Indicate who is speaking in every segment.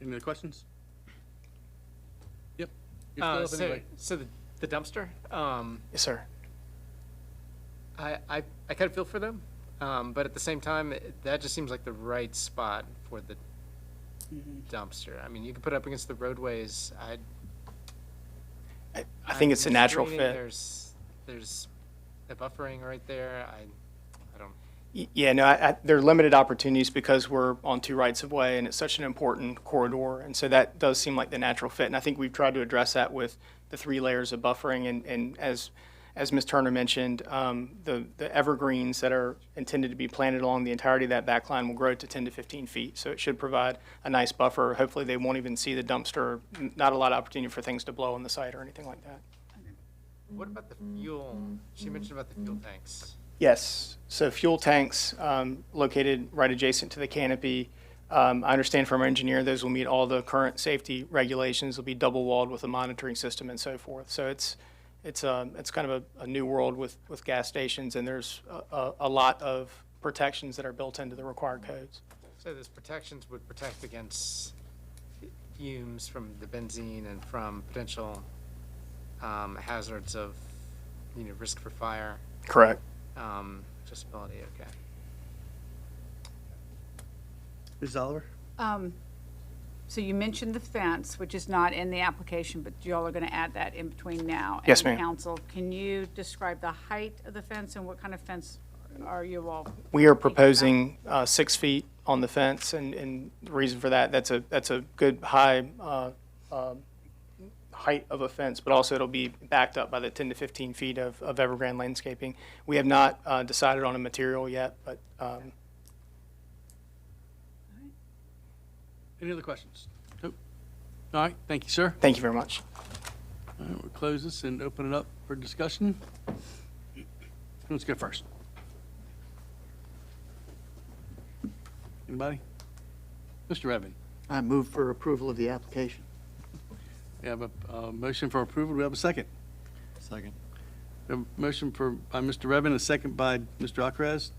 Speaker 1: Any other questions? Yep. You're
Speaker 2: Uh,
Speaker 1: still up
Speaker 2: so,
Speaker 1: anyway.
Speaker 2: so the, the dumpster, um,
Speaker 3: Yes, sir.
Speaker 2: I, I, I kind of feel for them, um, but at the same time, it- that just seems like the right spot for the dumpster. I mean, you could put it up against the roadways. I.
Speaker 3: I, I think it's a natural fit.
Speaker 2: There's, there's the buffering right there. I, I don't,
Speaker 3: Y- Yeah, no, I, I, there are limited opportunities because we're on two rights of way and it's such an important corridor. And so that does seem like the natural fit. And I think we've tried to address that with the three layers of buffering and, and as, as Ms. Turner mentioned, um, the, the evergreens that are intended to be planted along the entirety of that back line will grow to 10 to 15 feet. So it should provide a nice buffer. Hopefully they won't even see the dumpster, N- not a lot of opportunity for things to blow on the site or anything like that.
Speaker 2: what about the fuel? She mentioned about the fuel tanks.
Speaker 3: Yes, so fuel tanks um, located right adjacent to the canopy. Um, I understand from our engineer, those will meet all the current safety regulations, will be double walled with a monitoring system and so forth. So it's, it's, um, it's kind of a, a new world with, with gas stations, and there's a- a, a lot of protections that are built into the required codes.
Speaker 2: So those protections would protect against fumes from the benzene and from potential um, hazards of, you know, risk for fire,
Speaker 3: Correct.
Speaker 2: um, accessibility, okay.
Speaker 1: Ms. Oliver?
Speaker 4: Um, So you mentioned the fence, which is not in the application, but y'all are going to add that in between now.
Speaker 3: Yes, ma'am.
Speaker 4: And council, can you describe the height of the fence and what kind of fence are you all?
Speaker 3: We are proposing uh, six feet on the fence, and, and the reason for that, that's a, that's a good high uh, um, height of a fence, but also it'll be backed up by the 10 to 15 feet of, of evergreen landscaping. We have not uh, decided on a material yet, but um,
Speaker 1: Any other questions? Nope. All right, thank you, sir.
Speaker 3: thank you very much.
Speaker 1: All right, we'll close this and open it up for discussion. Let's go first. Anybody? Mr. Redmond,
Speaker 5: I move for approval of the application.
Speaker 1: we have a, uh motion for approval. Do we have a second?
Speaker 5: Second.
Speaker 1: We have A motion for, by Mr. Redmond, a second by Mr. Akraz.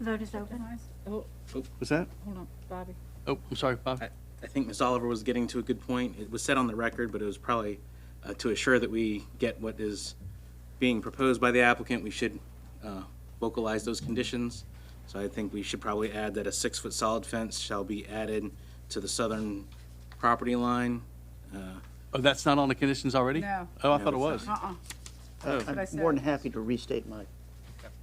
Speaker 4: Vote is open. Oh,
Speaker 1: What's that?
Speaker 4: Hold on, Bobby.
Speaker 1: Oh, I'm sorry, Bob.
Speaker 6: I think Ms. Oliver was getting to a good point. It was said on the record, but it was probably uh, to assure that we get what is being proposed by the applicant, we should uh, vocalize those conditions. So I think we should probably add that a six-foot solid fence shall be added to the southern property line. Uh,
Speaker 1: Oh, that's not on the conditions already?
Speaker 4: No.
Speaker 1: Oh, I
Speaker 6: No,
Speaker 1: thought it
Speaker 6: it's
Speaker 1: was.
Speaker 4: Uh-uh.
Speaker 1: Oh.
Speaker 4: what I
Speaker 5: I'm
Speaker 4: said.
Speaker 5: more than happy to restate my,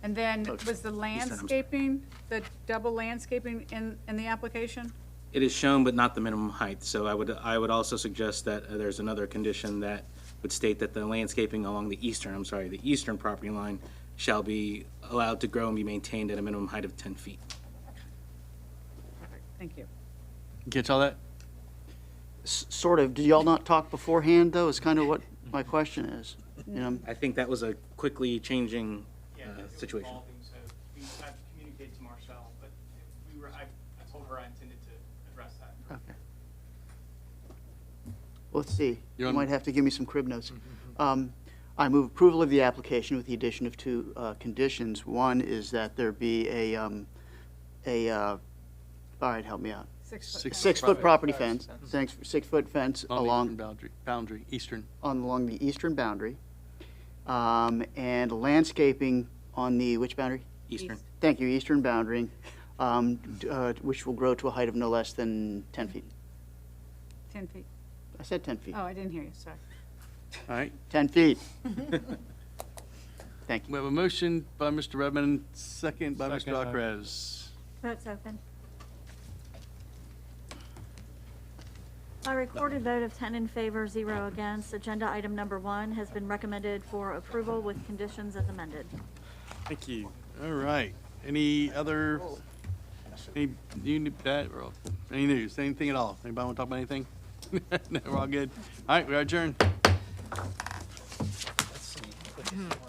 Speaker 4: And then
Speaker 5: Okay.
Speaker 4: was the
Speaker 6: I'm sorry.
Speaker 4: landscaping, the double landscaping in, in the application?
Speaker 6: It is shown, but not the minimum height, so I would, I would also suggest that uh, there's another condition that would state that the landscaping along the eastern, I'm sorry, the eastern property line shall be allowed to grow and be maintained at a minimum height of 10 feet.
Speaker 4: Perfect, Thank you.
Speaker 1: Catch all that?
Speaker 5: s- sort of, did y'all not talk beforehand, though, is kind of what my question is. You know,
Speaker 6: I think that was a quickly changing uh, situation.
Speaker 3: so we, I've communicated to Marcel, but we were, I, I told her I intended to address that.
Speaker 5: okay. Let's see,
Speaker 1: You're
Speaker 5: you
Speaker 1: on- Mm-hmm,
Speaker 5: might have to give me some crib notes. Um, I move approval of the application with the addition of two uh, conditions. One is that there be a, um, a, uh, all right, help me out.
Speaker 4: Six
Speaker 1: Six-
Speaker 4: foot.
Speaker 5: Six-foot property
Speaker 2: Sorry.
Speaker 5: fence, thanks, six-foot fence
Speaker 1: On the
Speaker 5: along
Speaker 1: eastern Boundary, boundary, eastern.
Speaker 5: on, along the eastern boundary, um, and landscaping on the, which boundary?
Speaker 6: Eastern,
Speaker 5: Thank you, eastern boundary, um, d- uh, which will grow to a height of no less than ten feet.
Speaker 4: 10 feet.
Speaker 5: I said ten feet.
Speaker 4: Oh, I didn't hear you, sorry.
Speaker 1: All right.
Speaker 5: Ten feet.
Speaker 1: We have a motion by Mr. Redmond, second by Mr.
Speaker 2: Second, uh,
Speaker 1: Akraz.
Speaker 7: Vote's open. By recorded vote of 10 in favor, zero against, agenda item number one has been recommended for approval with conditions as amended.
Speaker 1: Thank you. All right. Any other, any, you, knew that, or any news, anything at all? Anybody want to talk about anything? No, we're all good. All right, we are adjourned.
Speaker 2: Let's see.